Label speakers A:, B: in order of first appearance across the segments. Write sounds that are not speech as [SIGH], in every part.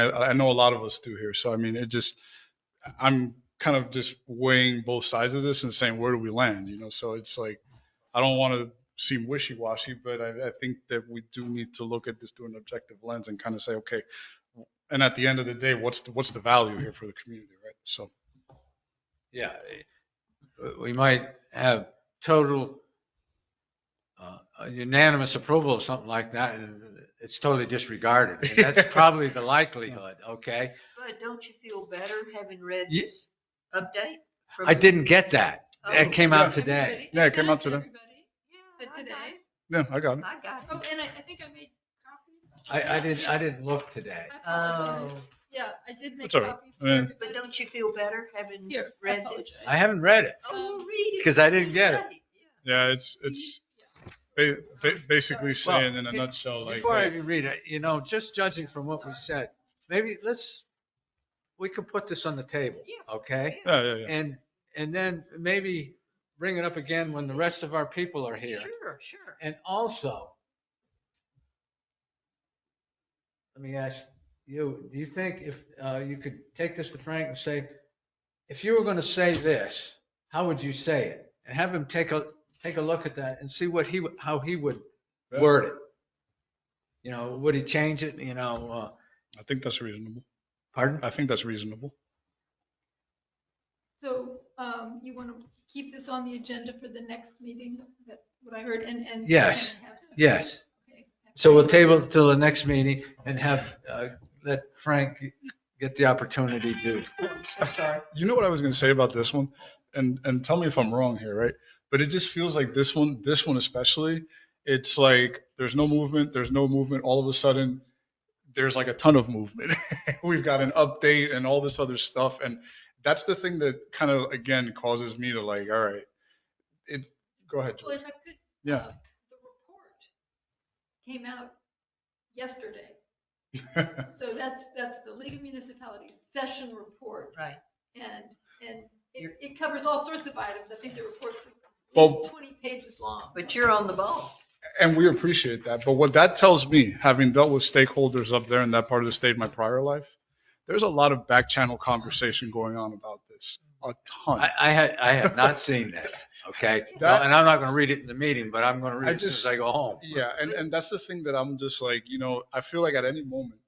A: I, I know a lot of us do here. So I mean, it just, I'm kind of just weighing both sides of this and saying, where do we land? You know, so it's like, I don't want to seem wishy-washy, but I, I think that we do need to look at this through an objective lens and kind of say, okay, and at the end of the day, what's, the what's the value here for the community, right? So,
B: Yeah, eh, we might have total uh, unanimous approval of something like that, and it's totally disregarded. And
C: [LAUGHS]
B: That's probably the likelihood, okay?
C: But don't you feel better having read
B: Ye-
C: this update? from
B: I
C: the-
B: didn't get that.
C: Oh.
B: That came
C: [LAUGHS]
B: out
D: Everybody-
B: today.
A: Yeah, it came out today.
D: Everybody.
C: Yeah,
D: But
C: I
D: today,
C: got it.
A: yeah, I got it.
C: I got
D: oh,
C: it.
D: and I, I think I made copies.
B: I, I didn't, I didn't look today.
D: I apologize.
C: Oh,
D: Yeah, I did make
A: That's all right.
D: copies. for
A: Yeah.
D: everybody.
C: but don't you feel better having
D: Here, I Um,
C: read this?
B: I haven't read it.
C: Oh, well, read it.
B: 'Cause I didn't get it.
C: Yeah.
A: Yeah, it's, it's ba- ba- basically saying in a nutshell, like,
B: Before I
A: hey,
B: even read it, you know, just judging from what we said, maybe let's, we could put this on the table,
C: Yeah.
B: okay?
A: yeah, yeah, yeah.
B: And, and then maybe bring it up again when the rest of our people are here.
C: Sure, sure.
B: And also, let me ask you, do you think if uh, you could take this to Frank and say, if you were going to say this, how would you say it? And have him take a, take a look at that and see what he, would- how he would word it. You know, would he change it, you know, uh,
A: I think that's reasonable.
B: pardon?
A: I think that's reasonable.
D: So, um, you want to keep this on the agenda for the next meeting? Is that what I heard? And, and.
B: Yes.
D: and have-
B: Yes.
D: okay.
B: So we'll table it till the next meeting and have, uh, let Frank get the opportunity to.
C: Oh, I'm so sorry.
A: You know what I was going to say about this one, and and tell me if I'm wrong here, right? But it just feels like this one, this one especially, it's like there's no movement, there's no movement. All of a sudden, there's like a ton of movement. [LAUGHS] We've got an update and all this other stuff, and that's the thing that kind of again causes me to like, all right, it. Go ahead.
D: Well,
A: George.
D: if I could.
A: Yeah.
D: uh, The report came out
A: [LAUGHS]
D: yesterday. So that's, that's the League of Municipalities session report.
C: Right.
D: And, and it,
C: You're-
D: it covers all sorts of items. I think the report's at
A: Well-
D: least 20 pages long.
C: But you're on the ball.
A: And we appreciate that. But what that tells me, having dealt with stakeholders up there in that part of the state in my prior life, there's a lot of back channel conversation going on about this. A ton.
B: I, I had, I have not seen this,
A: [LAUGHS]
B: okay? So-
A: That-
B: And I'm not gonna read it in the meeting, but I'm gonna read
A: I
B: it as soon as
A: just-
B: I go home.
A: Yeah, and, and that's the thing that I'm just like, you know, I feel like at any moment,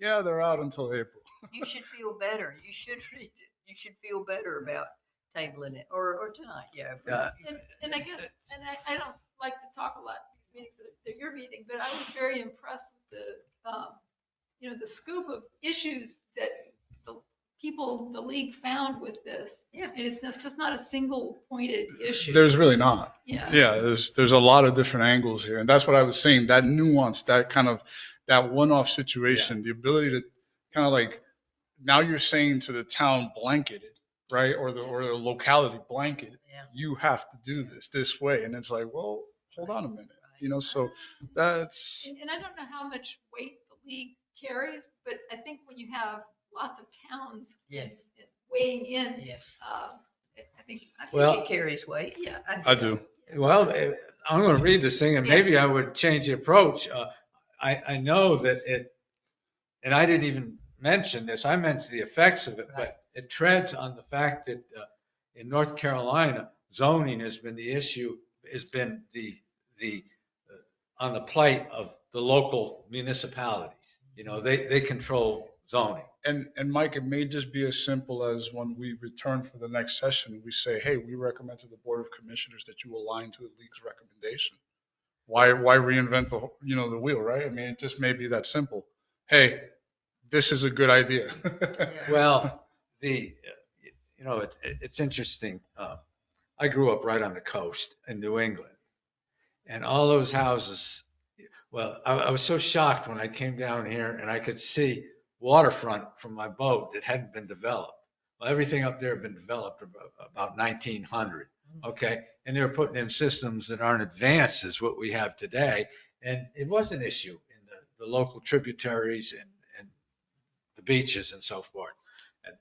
A: yeah, they're out until April.
C: You should feel better. You should [LAUGHS] read it. You should feel better about tabling it or, or tonight, yeah. if we-
B: Yeah.
D: And, and I guess, and I, I don't like to talk a lot at these meetings, they're- they're your meeting, but I was very impressed with the, um, you know, the scoop of issues that the people, the league found with this.
C: Yeah.
D: And it's, it's just not a single pointed issue.
A: There's really not.
D: Yeah.
A: Yeah, there's, there's a lot of different angles here. And that's what I was saying, that nuance, that kind of, that one-off situation, the ability to kind of like, now you're saying to the town blanketed, right? Or the, or the locality blanket,
C: Yeah.
A: you have to do this, this way. And it's like, well, hold on a minute, you know, so that's,
D: And, and I don't know how much weight the league carries, but I think when you have lots of towns
C: Yes,
D: weighing in,
C: yes.
D: uh, I think,
C: I think
B: Well-
C: it carries weight.
D: yeah.
A: I do.
B: Well, eh, I'm gonna read this thing and maybe I would change the approach. Uh, I, I know that it, and I didn't even mention this, I mentioned the effects of it, but it treads on the fact that uh, in North Carolina, zoning has been the issue, has been the, the, uh, on the plate of the local municipalities. You know, they, they control zoning.
A: And, and Mike, it may just be as simple as when we return for the next session, we say, hey, we recommend to the Board of Commissioners that you align to the league's recommendation. Why, why reinvent the, whole- you know, the wheel, right? I mean, it just may be that simple. Hey, this is a good idea. [LAUGHS]
B: [LAUGHS]
C: Yeah.
B: Well, the, uh, you know, it, it- it's interesting. Uh, I grew up right on the coast in New England. And all those houses, well, I, I was so shocked when I came down here and I could see waterfront from my boat that hadn't been developed. Well, everything up there had been developed abo- about 1900, okay? And they were putting in systems that aren't advanced as what we have today. And it was an issue in the, the local tributaries and, and the beaches and so forth. And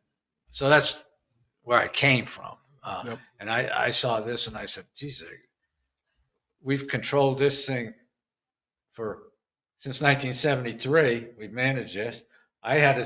B: so that's where I came from. Uh,
A: Yep.
B: And I, I saw this and I said, geez, I- we've controlled this thing for, since 1973, we've managed this. I had a